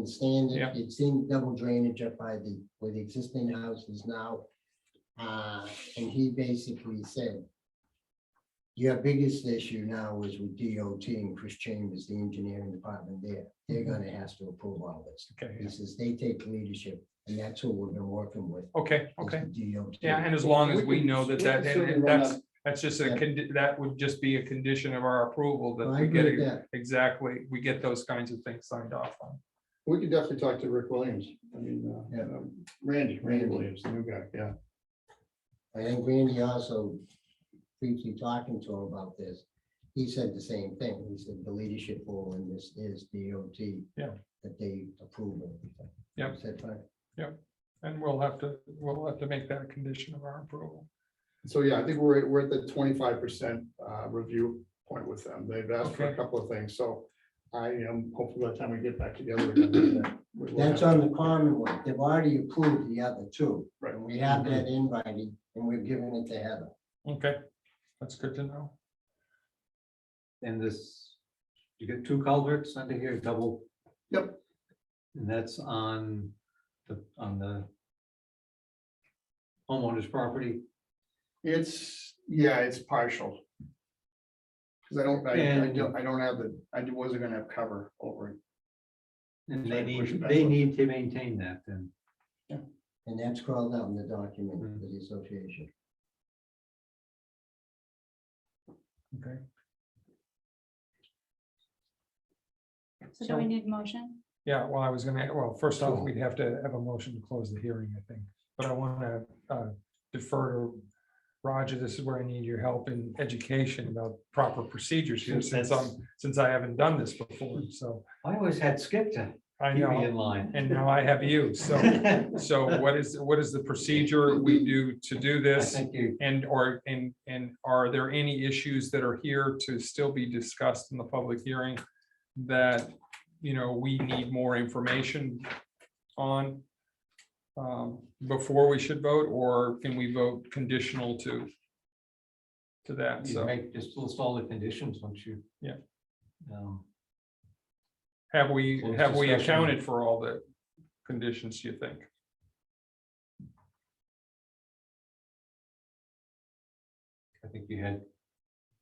the stand, Yeah. it's in double drainage up by the, where the existing house is now. Uh, and he basically said, your biggest issue now is with DOT and Chris Chambers, the engineering department there. Mm-hmm. They're gonna have to approve all this. Okay, He says they take leadership and that's who we've been working with. is okay, the okay. DOT. Yeah, and as long as we know that that, and- and that's, that's just a, Yeah. condi- that would just be a condition of our approval that I we agree get with it- that. exactly, we get those kinds of things signed off on. We could definitely talk to Rick Williams. I mean, uh, Yeah. um, Randy, Randy Randy. Williams, the new guy, yeah. I think Randy also briefly talking to him about this, he said the same thing. He said the leadership role in this is DOT. Yeah. That they approve of. Yep. Said, "Fine." And we'll have to, we'll have to make that a condition of our approval. So, yeah, I think we're, at- we're at the twenty-five percent uh, review point with them. They've asked for a Okay. couple of things, so I am hopeful by the time we get back together. we're gonna do that. We will That's have- on the common one. They've already approved the other two. Right. And we have that invited and we've given it to Heather. Okay, that's good to know. And this, you get two culverts under here, double. Yep. And that's on the, on the homeowner's property. It's, yeah, it's partial. Cause I don't, I- I And- don't, I don't have the, I wasn't gonna have cover over it. And Try they to push it need, back they up. need to maintain that then. And that's crawled out in the document Mhm. for the association. Okay. So do we need motion? Yeah, well, I was gonna, well, first off, we'd have to have a motion to close the hearing, I think, but I wanna uh, defer to Roger, this is where I need your help in education about proper procedures here, since I'm, since I haven't done this before, so I always had Skip to I keep me in know, line. and now I have you, so, I so what is, what is the procedure we do to do this? think you, And or, and, and are there any issues that are here to still be discussed in the public hearing? That, you know, we need more information on. um, Before we should vote, or can we vote conditional to? To that, you so make just list all the conditions once you. Yeah. Um, have we, Close have we discussion. accounted for all the conditions, you think? I think you had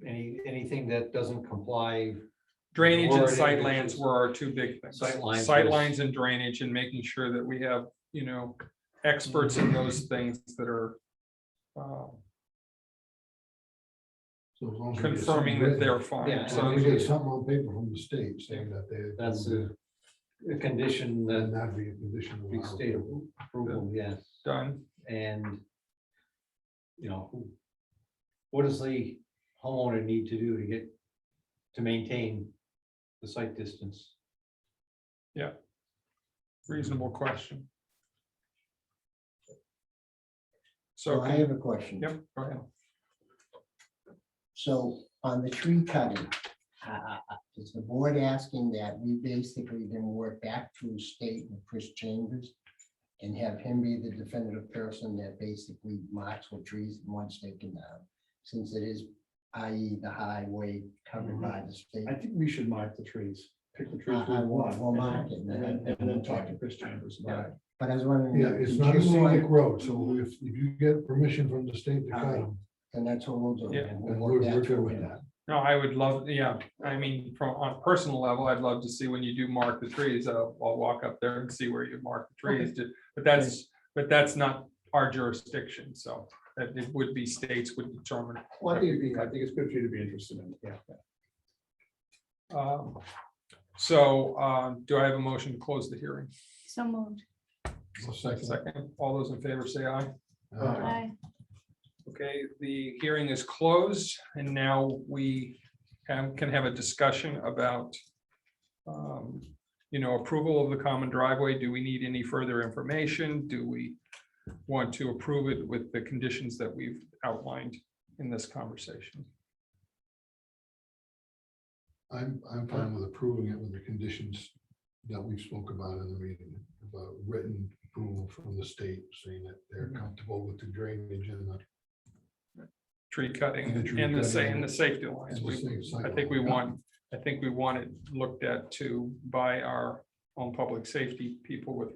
any, anything that doesn't comply Drainage and Majority, which sightlines is- were our two big things. Sightlines Sightlines was- and drainage and making sure that we have, you know, experts in those things that are. uh, So as long as we get Confirming something that they're written, fine. Yeah, As long So as we get something on paper from the state saying that they. That's a, a condition that Then that'd be a condition. of we our state approval. approval, yes, done. and you know, who, what does the homeowner need to do to get, to maintain the site distance? Reasonable question. So, So I have a question. yep, go ahead. So on the tree cutting, uh, is the board asking that we basically then work back through state and Chris Chambers? And have him be the definitive person that basically marks what trees he wants taken down? Since it is, i.e. the highway covered Mm-hmm. by the state. I think we should mark the trees, pick the trees I- we I will- want. will Uh-huh. mark it, and then I- then- And then talk to Chris Chambers about it. But I was wondering. Yeah, it's did not a you want- scenic road, so if, if you get permission from the state to cut them, Then that's what we'll do. Yeah. Uh-huh. We'll then work we're, back we're good through with it. that. No, I would love, yeah, I mean, from on a personal level, I'd love to see when you do mark the trees, I'll, I'll walk up there and see where you mark the trees. ju- But that's, but that's not our jurisdiction, so that it would be states would determine. Well, I think it'd be, I think it's good for you to be interested in, it, yeah. Um, So uh, do I have a motion to close the hearing? So moved. I'll second that. Second, all those in favor say aye. Uh, Aye. Okay, the hearing is closed and now we have- can have a discussion about, um, you know, approval of the common driveway. Do we need any further information? Do we want to approve it with the conditions that we've outlined in this conversation? I'm, I'm fine with approving it with the conditions that we spoke about in the meeting, about written approval from the state saying that they're comfortable with the drainage and the Tree cutting The tree and the sa- cutting. and the safety lines. and the We- safe I think we sidewalk. want, I think we want it looked at too by our on public safety people with